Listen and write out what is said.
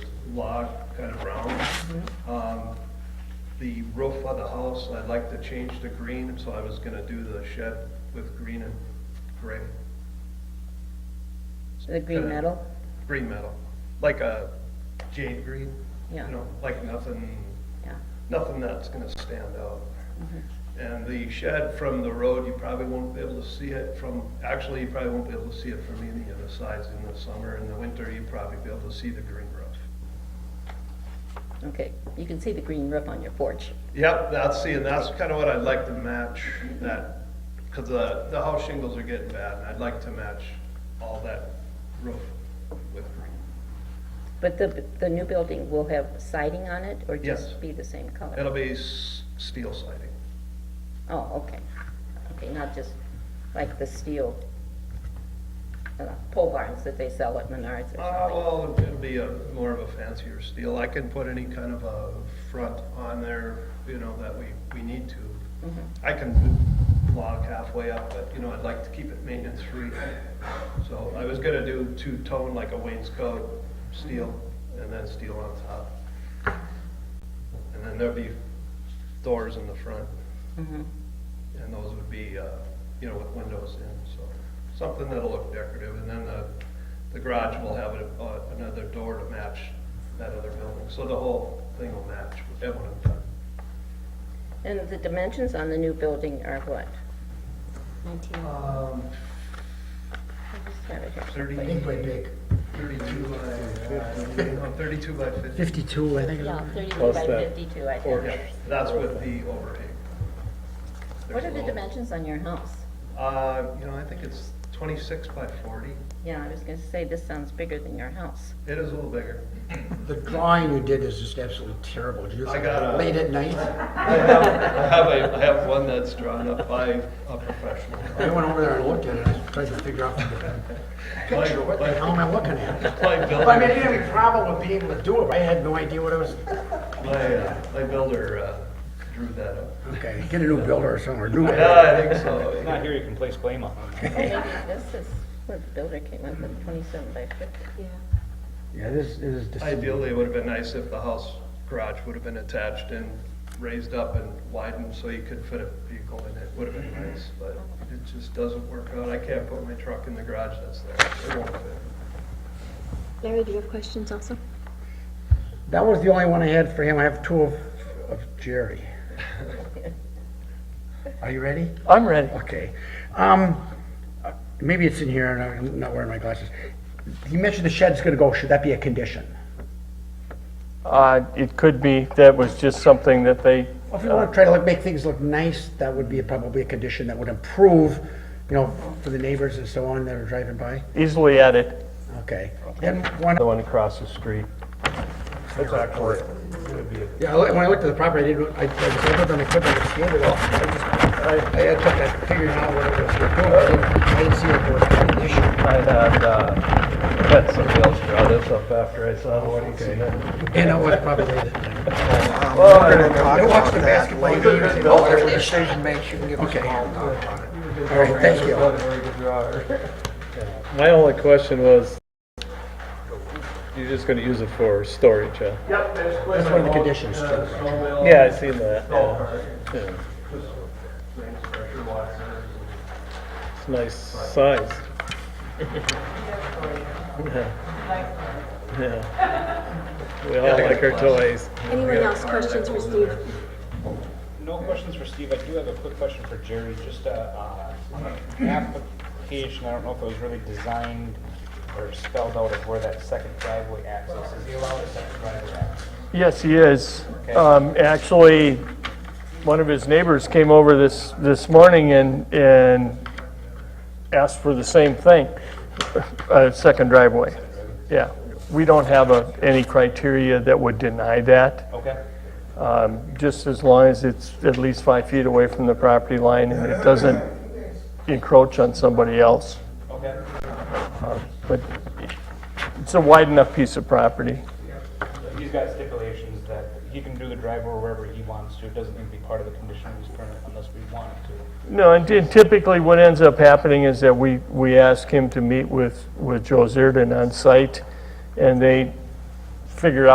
log, kind of round. Um, The roof of the house, I'd like to change to green, so I was gonna do the shed with green and gray, The green Kinda- metal? green metal, like a jade green. Yeah. You know, like nothing Yeah. nothing that's gonna stand out. Mm-hmm. And the shed from the road, you probably won't be able to see it from, actually, you probably won't be able to see it from any of the sides in the summer. In the winter, you'd probably be able to see the green roof. Okay, you can see the green roof on your porch. Yep, that's, see, and that's kinda what I'd like to match that, cause the, the house shingles are getting bad, and I'd like to match all that roof with green. But the, the new building will have siding on it or Yes. just be the same color? It'll be s- steel siding. Oh, okay. Okay, not just like the steel uh, pole barns that they sell at Menards or Uh, something. well, it'll be a, more of a fancier steel. I can put any kind of a front on there, you know, that we, we need to. I can block halfway up, but, you know, I'd like to keep it maintenance-free. So I was gonna do two-tone, like a wainscot, steel, and then steel on top. And then there'll be doors in the front. Mm-hmm. And those would be, uh, you know, with windows in, so something that'll look decorative. And then the, the garage will have a- uh, another door to match that other building. So the whole thing will match with everyone. And the dimensions on the new building are what? Um, I just have it here. thirty, I think quite big. thirty-two by, uh, thirty-two by fifty. 52, I think. Yeah, thirty-two Plus by that fifty-two, I Yeah, think. that's with the overhang. There's What a are the little- dimensions on your house? Uh, you know, I think it's twenty-six by forty. Yeah, I was gonna say, this sounds bigger than your house. It is a little bigger. The drawing you did is just absolutely terrible. Did you I got a- late at night? I have, I have, a- I have one that's drawn up by a professional. I went over there and looked at it, and tried to figure out Picture, what the hell am I looking at? My Well, I mean, I builder, didn't have any problem with being able to do it. I had no idea what I was, my, uh, my builder uh, drew that up. okay, get a new builder or somewhere, new. Yeah, I think so. Not here you can place blame on. Or Maybe this is where the builder came up with twenty-seven by fifty. Yeah, this is, Ideally, it would have been nice if the house garage would have been attached and raised up and widened so you could fit a vehicle in it. Would have been nice, but it just doesn't work out. I can't put my truck in the garage that's there. It won't fit. Larry, do you have questions also? that was the only one I had for him, I have two of, of Jerry. Are you ready? I'm ready. Okay, um, uh, maybe it's in here, and I'm not wearing my glasses. You mentioned the shed's gonna go, should that be a condition? Uh, It could be, that was just something that they, Well, If you wanna try to like, make things look nice, that would be a- probably a condition that would improve, you know, for the neighbors and so on that are driving by, easily edit, okay. And one, the one across the street. That's actually, yeah, I look- when I looked at the property, I didn't, I, I put them, I put them, I scanned it all, I just, I, I had took that, figured out what it was gonna do, I didn't, I didn't see it was a condition. I had, uh, had somebody else draw this up after I saw what he said. And it was probably late at night. Well, I don't know. I watched the basketball later. games, you know, whatever decision makes, you can give us a Okay. call and talk about it. All right, thank you. Not a very good drawer. My only question was, you're just gonna use it for storage, huh? Yep, there's. That's one of the conditions, uh, too, right? Yeah, I seen that, Golf yeah. cart. Yeah. Range pressure washers. It's a nice size. Yeah. Yeah. We all like our toys. Anyone else questions for Steve? No questions for Steve. I do have a quick question for Jerry, just uh, uh, on an application, I don't know if it was really designed or spelled out of where that second driveway access is. Is he allowed a second driveway access? Yes, he is. Um, Actually, one of his neighbors came over this, this morning and, and asked for the same thing, a second driveway. Yeah, we don't have a- any criteria that would deny that, Okay. um, just as long as it's at least five feet away from the property line and it doesn't encroach on somebody else. Okay. But it's a wide enough piece of property. He's got stipulations that he can do the driveway wherever he wants to. It doesn't need to be part of the conditional use permit unless we want it to. No, and ty- typically what ends up happening is that we, we ask him to meet with, with Joe Zirdan on site, and they figure out.